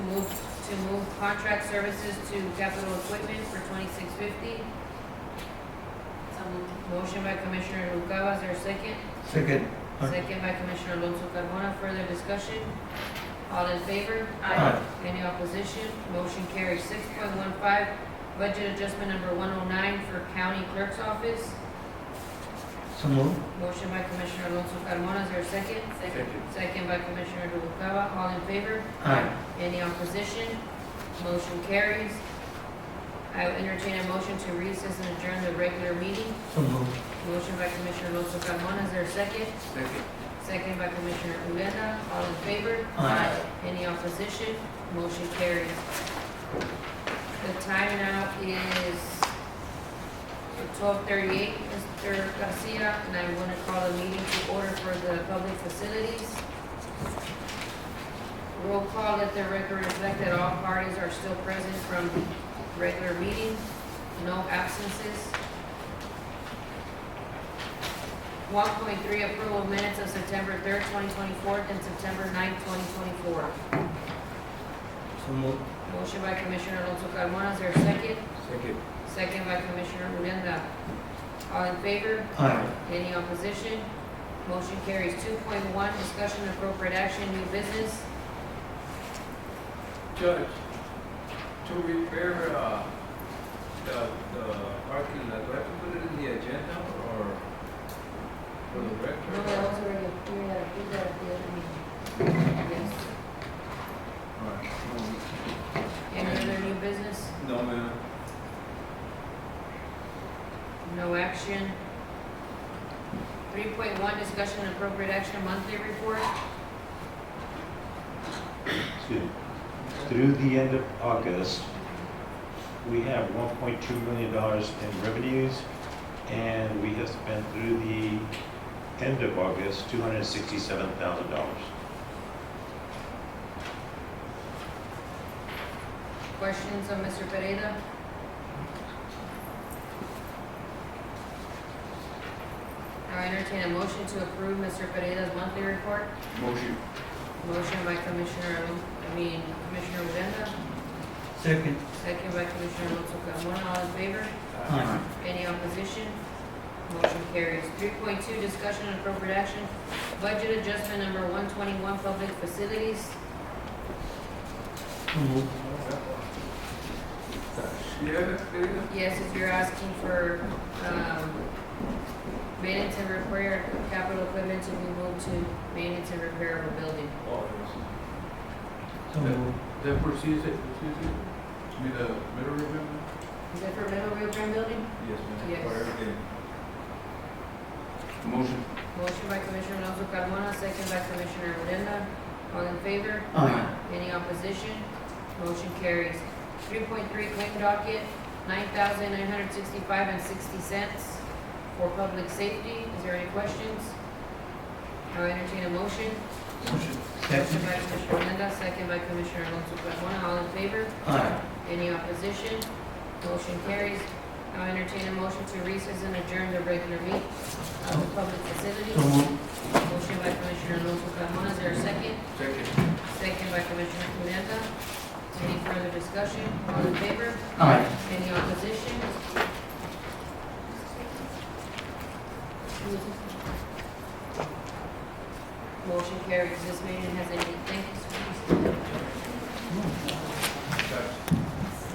to move contract services to capital equipment for twenty-six fifty. So moved. Motion by Commissioner Lucava, is there a second? Second. Second by Commissioner Alonso Carmona, further discussion? All in favor? Aye. Any opposition? Motion carries. Six point one five, budget adjustment number one oh nine for county clerk's office. So move. Motion by Commissioner Alonso Carmona, is there a second? Second. Second by Commissioner Noguera, all in favor? Aye. Any opposition? Motion carries. I will entertain a motion to recess and adjourn the regular meeting. So move. Motion by Commissioner Alonso Carmona, is there a second? Second. Second by Commissioner Urenda, all in favor? Aye. Any opposition? Motion carries. The time now is twelve thirty-eight, Mr. Garcia, and I want to call the meeting to order for the public facilities. Roll call, let the record reflect that all parties are still present from regular meeting, no absences. One point three, approval of minutes of September third, twenty twenty-four, and September 9th, twenty twenty-four. So move. Motion by Commissioner Alonso Carmona, is there a second? Second. Second by Commissioner Urenda. All in favor? Aye. Any opposition? Motion carries. Two point one, discussion and appropriate action, new business. Judge, to repair, uh, the, the parking lot, do I have to put it in the agenda or for the No, record? that was already, we had approved that at the other meeting. Yes. Alright. Any other new business? No, ma'am. No action. Three point one, discussion and appropriate action, monthly report. Excuse me. Through the end of August, we have $1.2 million in revenues, and we have spent through the end of August, $267,000. Questions of Mr. Pereira? I entertain a motion to approve Mr. Pereira's monthly report. Motion. Motion by Commissioner, I mean Commissioner Odena, Second. second by Commissioner Alonso Carmona, all in favor? Aye. Any opposition? Motion carries. Three point two, discussion and appropriate action, budget adjustment number one twenty-one, public facilities. So move. You have it, Peter? Yes, if you're asking for, um, maintenance and repair, capital equipment to be moved to maintenance and repair of a building. Oh, yes. So move. That proceeds it, proceeds it? You mean the middle ribbon? Is that for Middle Rio Grande Building? Yes, ma'am. Yes. For everything. Motion. Motion by Commissioner Alonso Carmona, second by Commissioner Odena. All in favor? Aye. Any opposition? Motion carries. Three point three claim docket, nine thousand nine hundred sixty-five and sixty cents for public safety. Is there any questions? I'll entertain a motion. Motion. Motion Second. by Commissioner Odena, second by Commissioner Alonso Carmona. All in favor? Aye. Any opposition? Motion carries. I'll entertain a motion to recess and adjourn the regular meet of the public facilities. So move. Motion by Commissioner Alonso Carmona, is there a second? Second. Second by Commissioner Uranda. Any further discussion? All in favor? Aye. Any opposition?